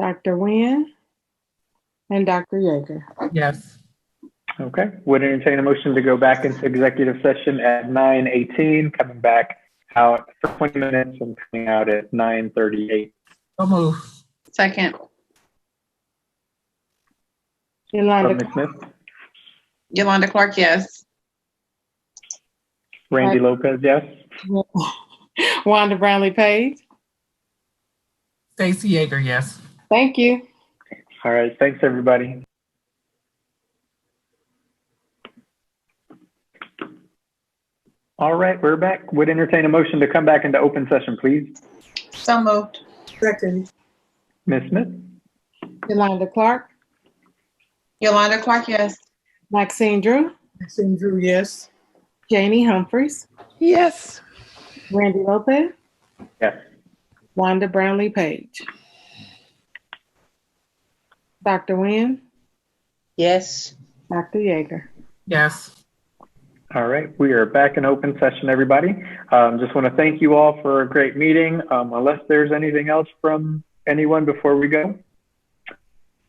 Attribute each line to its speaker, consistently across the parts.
Speaker 1: Dr. Nguyen, and Dr. Yeager.
Speaker 2: Yes.
Speaker 3: Okay, would entertain a motion to go back into executive session at nine eighteen, coming back out for twenty minutes and coming out at nine thirty-eight.
Speaker 2: So move.
Speaker 4: Second,
Speaker 1: Yolanda,
Speaker 3: Ms. Smith,
Speaker 4: Yolanda Clark, yes.
Speaker 3: Randy Lopez, yes?
Speaker 1: Wanda Brownlee Page.
Speaker 2: Stacy Jaeger, yes.
Speaker 1: Thank you.
Speaker 3: All right, thanks, everybody. All right, we're back. Would entertain a motion to come back into open session, please.
Speaker 4: So moved.
Speaker 5: Second,
Speaker 3: Ms. Smith,
Speaker 1: Yolanda Clark,
Speaker 4: Yolanda Clark, yes.
Speaker 1: Maxine Drew,
Speaker 5: Maxine Drew, yes.
Speaker 1: Janie Humphries,
Speaker 5: Yes.
Speaker 1: Randy Lopez.
Speaker 3: Yes.
Speaker 1: Wanda Brownlee Page. Dr. Nguyen,
Speaker 4: Yes.
Speaker 1: Dr. Yeager.
Speaker 2: Yes.
Speaker 3: All right, we are back in open session, everybody. Um, just want to thank you all for a great meeting. Um, unless there's anything else from anyone before we go,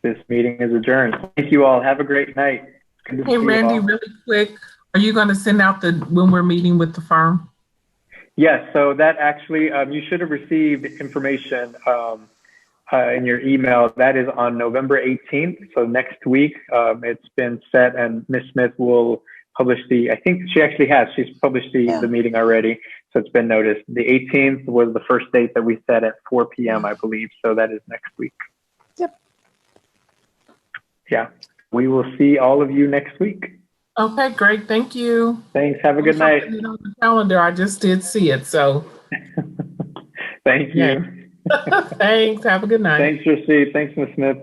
Speaker 3: this meeting is adjourned. Thank you all. Have a great night. Good to see
Speaker 2: Hey,
Speaker 3: you
Speaker 2: Randy,
Speaker 3: all.
Speaker 2: really quick, are you going to send out the, when we're meeting with the firm?
Speaker 3: Yes, so that actually, um, you should have received information um, uh, in your email. That is on November 18th, so next week. Um, it's been set, and Ms. Smith will publish the, I think she actually has, she's published the, the meeting already, so it's been noticed. The 18th was the first date that we set at 4 p.m., I believe, so that is next week.
Speaker 5: Yep.
Speaker 3: Yeah, we will see all of you next week.
Speaker 2: Okay, great. Thank you.
Speaker 3: Thanks, have a good night.
Speaker 2: Something on the Calendar, I just did see it. So
Speaker 3: Thank you.
Speaker 2: Yeah. thanks. Have a good night.
Speaker 3: Thanks, Rasheed. Thanks, Ms. Smith.